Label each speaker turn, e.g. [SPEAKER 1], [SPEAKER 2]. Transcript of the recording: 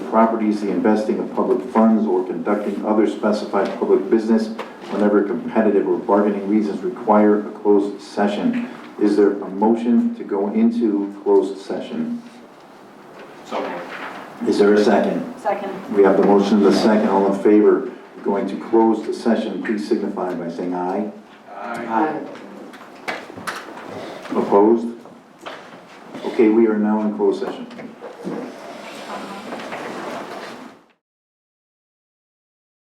[SPEAKER 1] properties, the investing of public funds, or conducting other specified public business whenever competitive or bargaining reasons require a closed session. Is there a motion to go into closed session?
[SPEAKER 2] So moved.
[SPEAKER 1] Is there a second?
[SPEAKER 3] Second.
[SPEAKER 1] We have the motion and the second, all in favor of going to close the session, please signify by saying aye. Opposed? Okay, we are now in closed session.